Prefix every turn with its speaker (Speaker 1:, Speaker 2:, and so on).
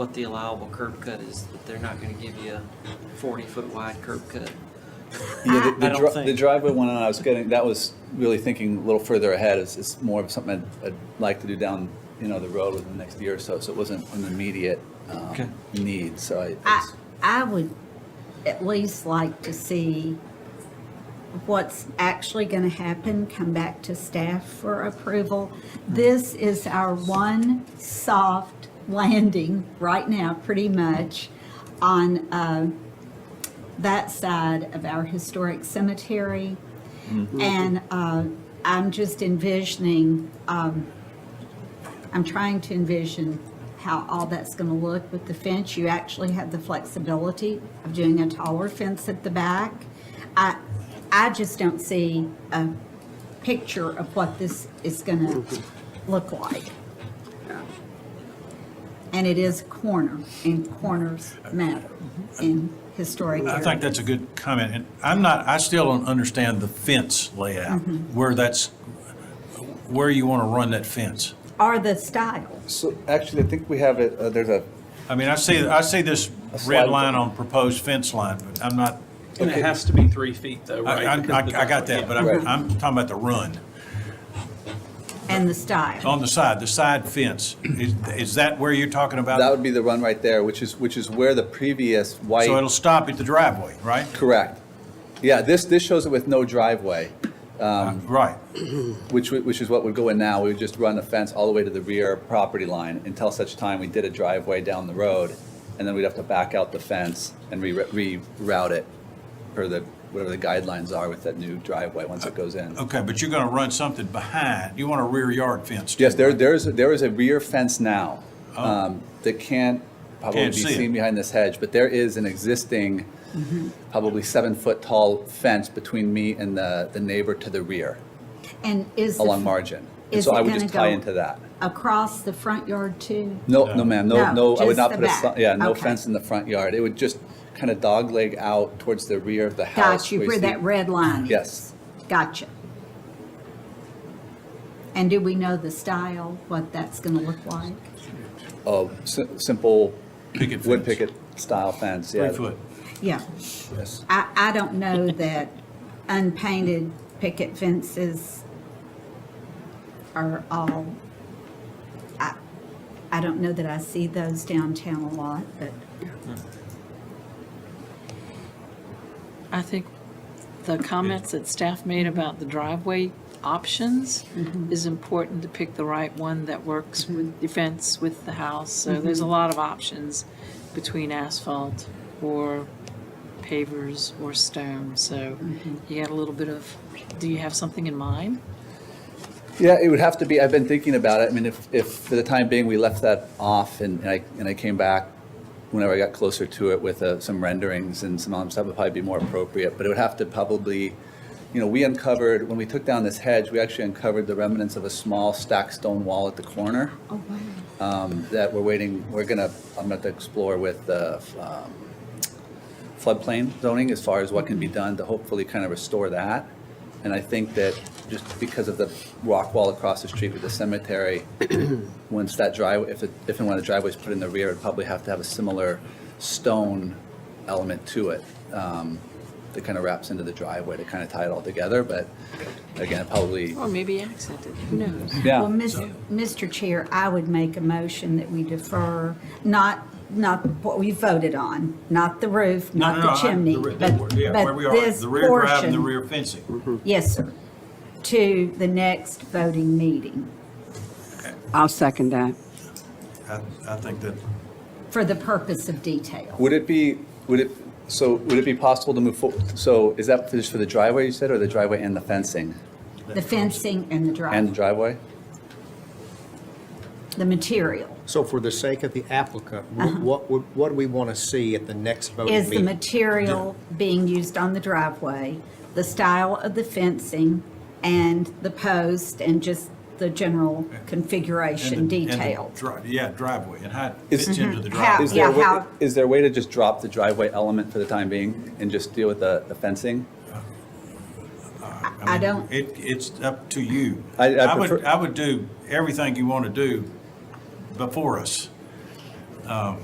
Speaker 1: what the allowable curb cut is, that they're not gonna give you a forty-foot wide curb cut.
Speaker 2: Yeah, the-
Speaker 1: Ah, I
Speaker 2: the,
Speaker 1: don't
Speaker 2: dri-
Speaker 1: think-
Speaker 2: the driveway one I was getting, that was really thinking a little further ahead. It's, it's more of something I'd, I'd like to do down, you know, the road within the next year or so. So it wasn't an immediate um,
Speaker 1: Okay.
Speaker 2: need. So I,
Speaker 3: I, I would at least like to see what's actually going to happen, come back to staff for approval. This is our one soft landing right now, pretty much, on uh, that side of our historic cemetery. And uh, I'm just envisioning, um, I'm trying to envision how all that's going to look with the fence. You actually have the flexibility of doing a taller fence at the back. I, I just don't see a picture of what this is going to look like. And it is a corner, and corners matter in historic
Speaker 4: I think that's a good comment, and I'm not, I still don't understand the fence layout, where that's, where you want to run that fence.
Speaker 3: Are the style.
Speaker 2: so actually, I think we have it, uh, there's a,
Speaker 4: I mean, I see, I see this
Speaker 2: A slide.
Speaker 4: red line on proposed fence line, but I'm not,
Speaker 5: And it has to be three feet though,
Speaker 4: I,
Speaker 5: right?
Speaker 4: I, I
Speaker 5: Because the-
Speaker 4: I got that, but
Speaker 2: Right.
Speaker 4: I'm, I'm talking about the run.
Speaker 3: And the style.
Speaker 4: On the side, the side fence, is, is that where you're talking
Speaker 2: that
Speaker 4: about?
Speaker 2: would be the run right there, which is, which is where the previous white.
Speaker 4: So it'll stop at the driveway, right?
Speaker 2: Correct. Yeah, this, this shows it with no driveway,
Speaker 4: Right.
Speaker 2: which, w- which is what would go in now. We would just run a fence all the way to the rear property line until such time we did a driveway down the road. And then we'd have to back out the fence and re- reroute it per the, whatever the guidelines are with that new driveway once it goes in.
Speaker 4: Okay, but you're going to run something behind, you want a rear yard fence? too,
Speaker 2: Yes, there,
Speaker 4: right?
Speaker 2: there's, there is a rear fence now um, that can't probably be
Speaker 4: Oh. Can't see it.
Speaker 2: seen behind this hedge, but there is an existing,
Speaker 3: Mm-hmm.
Speaker 2: probably seven-foot-tall fence between me and the, the neighbor to the rear
Speaker 3: And is. the-
Speaker 2: along margin. And
Speaker 3: is
Speaker 2: so
Speaker 3: it
Speaker 2: I would
Speaker 3: gonna
Speaker 2: just tie
Speaker 3: go
Speaker 2: into that.
Speaker 3: Across the front yard too?
Speaker 2: No, no, ma'am, no,
Speaker 3: No,
Speaker 2: no, I would
Speaker 3: just
Speaker 2: not
Speaker 3: the
Speaker 2: put a,
Speaker 3: back.
Speaker 2: si- yeah, no
Speaker 3: Okay.
Speaker 2: fence in the front yard. It would just kind of dogleg out towards the rear of the house.
Speaker 3: Got you,
Speaker 2: you
Speaker 3: where
Speaker 2: see-
Speaker 3: that red line is.
Speaker 2: Yes.
Speaker 3: Gotcha. And do we know the style, what that's going to look like?
Speaker 2: a si- simple
Speaker 4: Picket
Speaker 2: wood
Speaker 4: fence.
Speaker 2: picket style fence, yeah.
Speaker 4: Three foot.
Speaker 3: Yeah,
Speaker 2: Yes.
Speaker 3: I, I don't know that unpainted picket fences are all, I, I don't know that I see those downtown a lot, but
Speaker 6: I think the comments that staff made about the driveway options is important to pick the right one that works with the fence, with the house. So there's a lot of options between asphalt or pavers or stone. So you got a little bit of, do you have something in mind?
Speaker 2: Yeah, it would have to be, I've been thinking about it. I mean, if, if for the time being, we left that off and and I, and I came back whenever I got closer to it with uh, some renderings and some other stuff, it'd probably be more appropriate. But it would have to probably, you know, we uncovered, when we took down this hedge, we actually uncovered the remnants of a small stacked stone wall at the corner
Speaker 3: oh,
Speaker 2: um, that we're waiting, we're gonna, I'm gonna have to explore with the um, floodplain zoning as far as what can be done to hopefully kind of restore that. And I think that just because of the rock wall across the street with the cemetery, once that driveway, if, it- if and when the driveway's put in the rear, it'd probably have to have a similar stone element to it um, that kind of wraps into the driveway to kind of tie it all together, but again, probably,
Speaker 6: Or maybe accented, who knows?
Speaker 2: yeah.
Speaker 3: Well, Ms- Mr. Chair, I would make a motion that we defer, not, not what we voted on, not the roof,
Speaker 4: No,
Speaker 3: not
Speaker 4: no, no,
Speaker 3: the
Speaker 4: I-
Speaker 3: chimney,
Speaker 4: re-
Speaker 3: but,
Speaker 4: the- yeah, where
Speaker 3: but
Speaker 4: we are,
Speaker 3: this
Speaker 4: The rear drive and the
Speaker 3: portion.
Speaker 4: rear fencing.
Speaker 3: Yes, sir. To the next voting meeting
Speaker 7: I'll second that.
Speaker 4: I, I think that,
Speaker 3: for the purpose of detail.
Speaker 2: Would it be, would it, so would it be possible to move forward? So is that just for the driveway you said, or the driveway and the fencing?
Speaker 3: The fencing and the
Speaker 2: And the
Speaker 3: drive,
Speaker 2: driveway?
Speaker 3: the material.
Speaker 8: So for the sake of the applicant, wh- what, would- what do we want to see at the next
Speaker 2: Oh,
Speaker 8: voting
Speaker 3: Uh-huh. Is the
Speaker 8: meeting?
Speaker 3: material being used on the driveway, the style of the fencing, and the post, and just the general configuration
Speaker 4: and the- and the
Speaker 3: detail?
Speaker 4: dri- Yeah, driveway, and how it
Speaker 2: Is-
Speaker 4: fits into the
Speaker 3: Mhm.
Speaker 4: driveway.
Speaker 2: Is there,
Speaker 3: Yeah,
Speaker 2: a way-
Speaker 3: how-
Speaker 2: is there a way to just drop the driveway element for the time being and just deal with the the fencing?
Speaker 3: I
Speaker 4: mean,
Speaker 3: don't-
Speaker 4: It, it's up to you.
Speaker 2: I- I
Speaker 4: would,
Speaker 2: prefer-
Speaker 4: I would do everything you want to do before us.